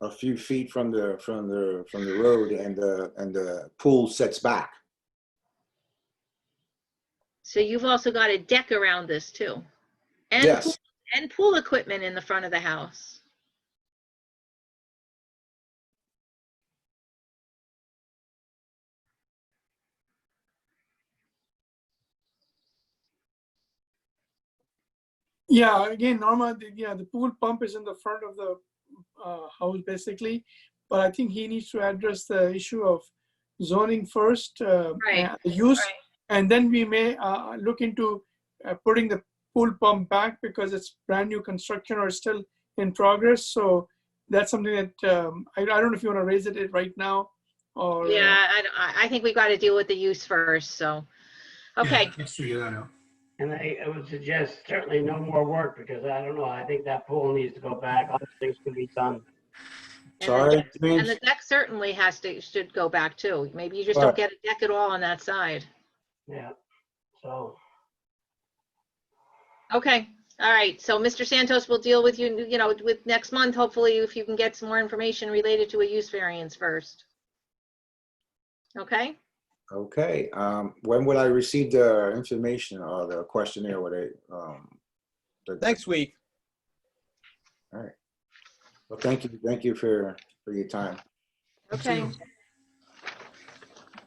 a few feet from the, from the, from the road and the, and the pool sets back. So you've also got a deck around this too? and pool- Yes, And pool equipment in the front of the house? Yeah, again, Norma, the, yeah, the pool pump is in the front of the uh, house basically, but I think he needs to address the issue of zoning first, uh, Right, and the use, and then we may uh, look into uh, putting the pool pump back because it's brand new construction or still in progress. So that's something that um, I, I don't know if you want to raise it right now or uh, Yeah, I, I- I think we got to deal with the use first, so. Okay, Let's figure that out. And I, I would suggest certainly no more work because I don't know, I think that pool needs to go back. Other things can be done. sorry. and James? the deck certainly has to, should go back too. Maybe you just don't Right. get a deck at all on that side. Yeah. So, Okay, all right, so Mr. Santos will deal with you, you know, with next month, hopefully, if you can get some more information related to a use variance first. Okay, Okay, um, when would I receive the information or the questionnaire, would it, um? the- Next week. Well, thank you, thank you for, for your time. okay.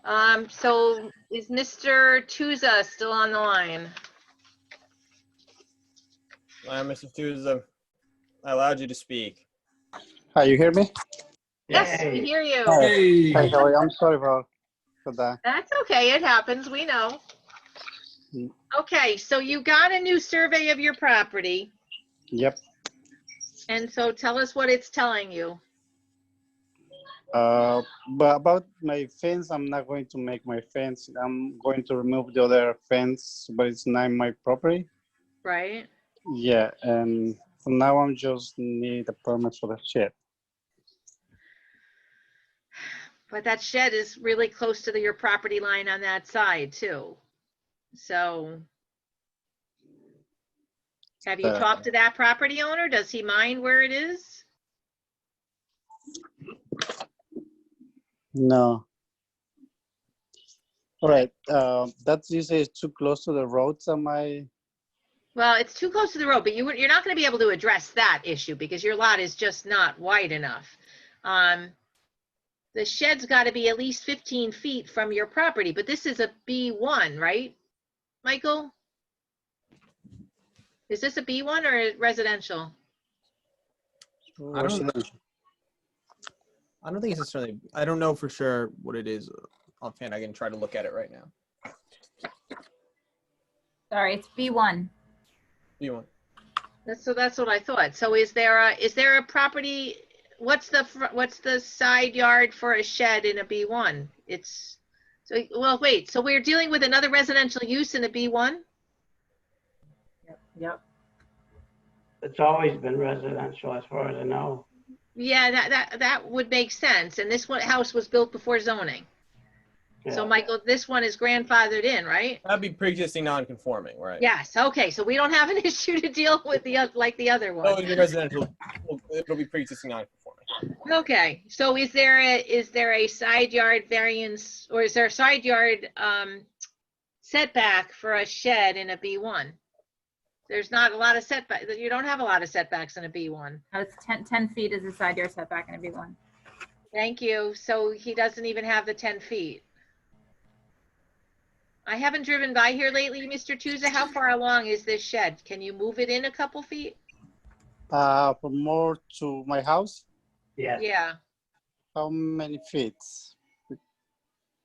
Um, so is Mr. Tuza still on the line? Uh, Mr. Souza, I allowed you to speak. Hi, you hear me? Yes, we Yay. hear you. Hey, Hi, how are you? I'm sorry for, for that. That's okay, it happens, we know. Hmm. Okay, so you got a new survey of your property, Yep. and so tell us what it's telling you. Uh, but about my fence, I'm not going to make my fence. I'm going to remove the other fence, but it's not my property. Right, Yeah, and from now on, just need a permit for the shed. but that shed is really close to the- your property line on that side too. So. Have you Uh. talked to that property owner? Does he mind where it is? No. All right. Uh, that you say is too close to the roads. Am I? Well, it's too close to the road, but you, you're not gonna be able to address that issue because your lot is just not wide enough. Um, the shed's gotta be at least fifteen feet from your property, but this is a B one, right? Michael? Is this a B one or residential? I don't, I don't think it's necessarily, I don't know for sure what it is offhand. I can try to look at it right now. Sorry, it's B1. Do you want? That's, so that's what I thought. So is there a, is there a property, what's the, fr- what's the side yard for a shed in a B one? It's, so, well, wait, so we're dealing with another residential use in a B one? Yep. it's always been residential as far as I know. Yeah, that, that, that would make sense. And this one, house was built before zoning. So Yeah. Michael, this one is grandfathered in, right? That'd be pre-existing non-conforming, right? Yes, okay, so we don't have an issue to deal with the, oth- like the other No, one. it'll be Oh, residential. It'll be pre-existing non-conforming. Okay, so is there a, is there a side yard variance, or is there a side yard, um, setback for a shed in a B one? There's not a lot of setback, you don't have a lot of setbacks in a B one. No, it's 10, 10 feet is the side yard setback in a B1. Thank you. So he doesn't even have the 10 feet. I haven't driven by here lately, Mr. Tuza. How far along is this shed? Can you move it in a couple feet? Uh, from more to my house, Yeah. Yeah, how many feet?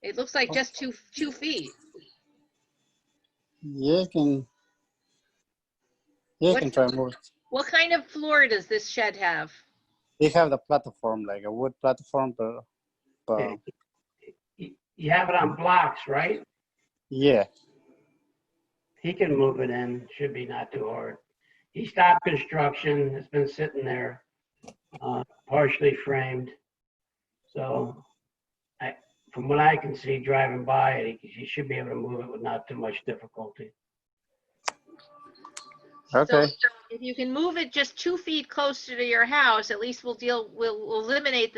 it looks like just two, two feet. Yeah, I can. Yeah, I can What's- try more. What kind of floor does this shed have? They have the platform, like a wood platform, but, but You- You have it on blocks, right? yeah, He can move it in, should be not too hard. He stopped construction, it's been sitting there, uh, partially framed. So I, from what I can see driving by, it, he should be able to move it with not too much difficulty. So okay. if you can move it just two feet closer to your house, at least we'll deal, we'll we'll eliminate the